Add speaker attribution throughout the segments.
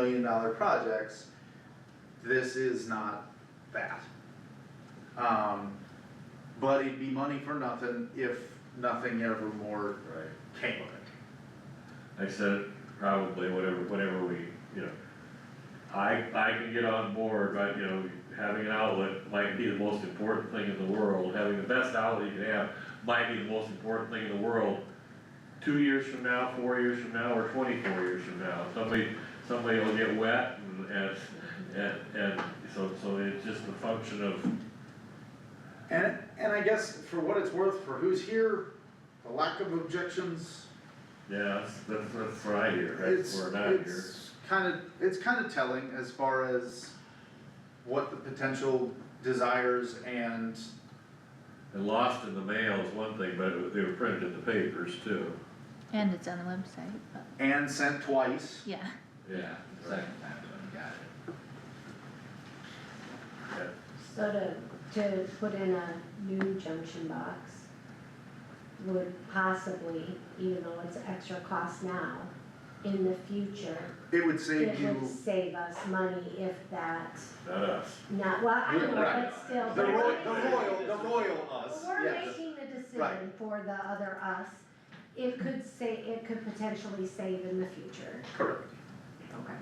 Speaker 1: million dollar projects, this is not that. Um, but it'd be money for nothing if nothing ever more
Speaker 2: right?
Speaker 1: came of it.
Speaker 2: Like I said, probably whatever, whatever we, you know, I, I can get on board, but, you know, having an outlet might be the most important thing in the world, having the best outlet you can have might be the most important thing in the world. Two years from now, four years from now, or twenty-four years from now, somebody, somebody will get wet and, and, and, and so, so it's just a function of,
Speaker 1: And, and I guess for what it's worth, for who's here, the lack of objections,
Speaker 2: yeah, that's, that's, that's what I hear, right,
Speaker 1: it's,
Speaker 2: we're not here.
Speaker 1: it's kinda, it's kinda telling as far as what the potential desires and
Speaker 2: And lost in the mail is one thing, but they were printed in the papers too.
Speaker 3: And it's on the website, but,
Speaker 1: and sent twice.
Speaker 3: yeah.
Speaker 2: Yeah.
Speaker 4: Second time, I got it.
Speaker 5: So to, to put in a new junction box would possibly, even though it's extra cost now, in the future,
Speaker 1: It would save
Speaker 5: it
Speaker 1: you.
Speaker 5: would save us money if that,
Speaker 2: Not us.
Speaker 5: not, well, I know,
Speaker 1: Right.
Speaker 5: but still,
Speaker 1: The
Speaker 5: but
Speaker 1: royal,
Speaker 5: we're
Speaker 1: the royal, the royal us,
Speaker 5: We're
Speaker 1: yes.
Speaker 5: making the decision
Speaker 1: Right.
Speaker 5: for the other us, it could sa- it could potentially save in the future.
Speaker 1: Correct.
Speaker 5: Okay.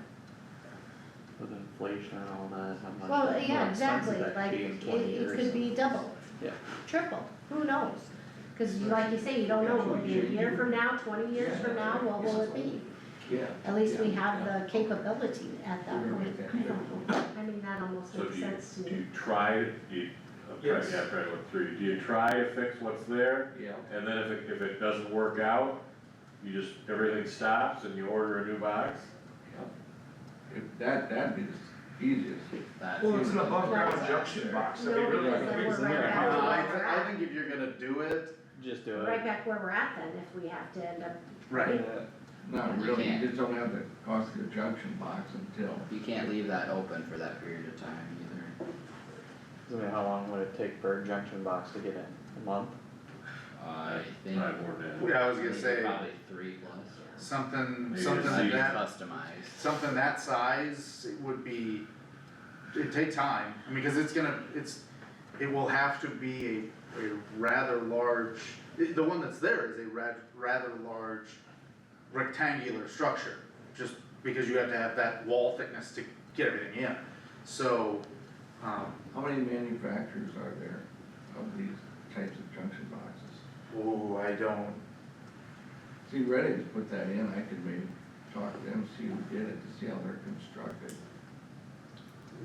Speaker 6: With inflation and all that, how much.
Speaker 5: Well,
Speaker 6: that-
Speaker 5: yeah,
Speaker 6: how expensive
Speaker 5: exactly,
Speaker 6: that could
Speaker 5: like,
Speaker 6: be in
Speaker 5: it,
Speaker 6: 20
Speaker 5: it
Speaker 6: years
Speaker 5: could be
Speaker 6: and-
Speaker 5: double.
Speaker 6: Yeah.
Speaker 5: Triple, who knows? Cause you- like you say, you don't know, will it be a year from now, twenty years from now, what will it be?
Speaker 4: Yeah.
Speaker 5: At least we
Speaker 4: Yeah,
Speaker 5: have
Speaker 4: yeah.
Speaker 5: the capability at that
Speaker 4: We're
Speaker 5: point,
Speaker 4: right
Speaker 5: I
Speaker 4: there.
Speaker 5: don't know, I mean, that almost
Speaker 2: So
Speaker 5: makes
Speaker 2: do you,
Speaker 5: sense to
Speaker 2: do
Speaker 5: me.
Speaker 2: you try, do you, I'm trying,
Speaker 4: Yes.
Speaker 2: yeah, I'm trying to look through, do you try to fix what's there?
Speaker 4: Yeah.
Speaker 2: And then if it, if it doesn't work out, you just, everything stops and you order a new box?
Speaker 4: If That, that'd be the easiest.
Speaker 7: Well, it's an above ground
Speaker 5: Right.
Speaker 7: junction box, I
Speaker 5: No,
Speaker 7: mean, really,
Speaker 5: because then
Speaker 7: we-
Speaker 5: we're
Speaker 7: we-
Speaker 5: right back to
Speaker 1: Uh, I,
Speaker 5: where
Speaker 1: thi-
Speaker 5: we're
Speaker 1: I
Speaker 5: at.
Speaker 1: think if you're gonna do it,
Speaker 6: Just do
Speaker 5: Right
Speaker 6: it.
Speaker 5: back where we're at then, if we have to end up,
Speaker 1: right,
Speaker 6: Yeah.
Speaker 4: Not
Speaker 3: You
Speaker 4: really, you
Speaker 3: can't.
Speaker 4: just don't have the cost of the junction box until.
Speaker 8: You can't leave that open for that period of time either.
Speaker 6: I mean, how long would it take for a junction box to get in? A month?
Speaker 8: I think.
Speaker 2: Probably more than that.
Speaker 1: yeah, I was gonna
Speaker 8: maybe
Speaker 1: say,
Speaker 8: Probably three plus.
Speaker 1: something,
Speaker 2: Maybe
Speaker 1: something
Speaker 2: it's
Speaker 1: like
Speaker 2: easy.
Speaker 1: that,
Speaker 8: Customized.
Speaker 1: something that size, it would be, it'd take time, I mean, cause it's gonna, it's, it will have to be a, a rather large, the the one that's there is a rad, rather large rectangular structure, just because you have to have that wall thickness to get everything in, so, um,
Speaker 4: How many manufacturers are there of these types of junction boxes?
Speaker 1: ooh, oh, I don't,
Speaker 4: See, Redding's put that in, I could maybe talk to them, see who did it, to see how they're constructed.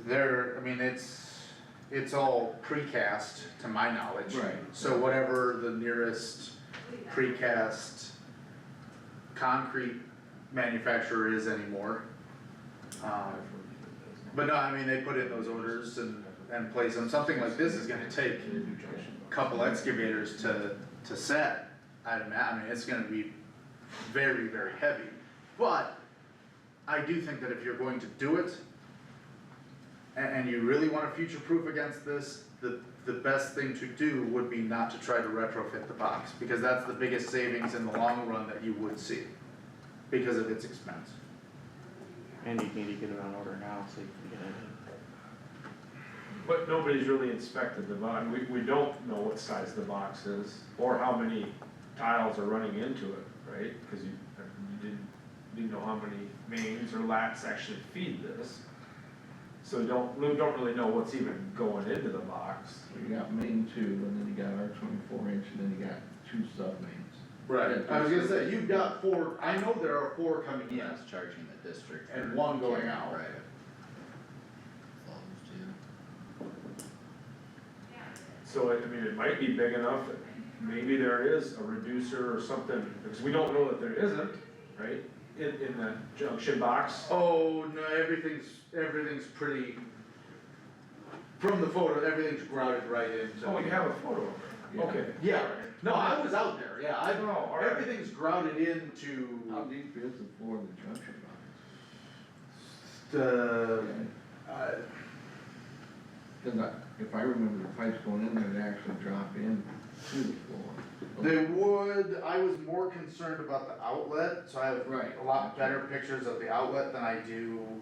Speaker 1: There, I mean, it's, it's all precast to my knowledge.
Speaker 4: Right.
Speaker 1: So whatever the nearest precast concrete manufacturer is anymore. Um, But no, I mean, they put in those orders and, and place them, something like this is gonna take a couple excavators to, to set. I'd imagine, I mean, it's gonna be very, very heavy, but I do think that if you're going to do it, and, and you really wanna future-proof against this, the, the best thing to do would be not to try to retrofit the box, because that's the biggest savings in the long run that you would see, because of its expense.
Speaker 6: And you need to get it on order now so you can get it
Speaker 7: but nobody's really inspected the box, we, we don't know what size the box is, or how many tiles are running into it, right? Cause you, you didn't, didn't know how many mains or lats actually feed this. So don't, we don't really know what's even going into the box.
Speaker 4: So you got main two, and then you got our twenty-four inch, and then you got two sub-mains.
Speaker 1: Right, I was gonna say, you've got four, I know there are four coming in,
Speaker 8: That's charging the district.
Speaker 1: And
Speaker 8: for
Speaker 1: one going
Speaker 8: carrying
Speaker 1: out.
Speaker 8: Right. Close to.
Speaker 7: So, I I mean, it might be big enough, that maybe there is a reducer or something, because we don't know that there isn't, right? In, in the junction box,
Speaker 1: Oh no, everything's everything's pretty. From the photo, everything's grouted right in.
Speaker 7: oh, you have a photo of it,
Speaker 4: Yeah.
Speaker 7: okay.
Speaker 1: Yeah. No, I was out there. Yeah, I.
Speaker 7: Oh, all right. Um,
Speaker 1: everything's grouted into
Speaker 4: How deep is the floor of the junction box?
Speaker 1: the. Uh,
Speaker 4: Cause I, if I remember the pipes going in there, they actually drop in to the floor.
Speaker 1: they would. I was more concerned about the outlet, so I have
Speaker 4: Right.
Speaker 1: a lot better pictures of the outlet than I do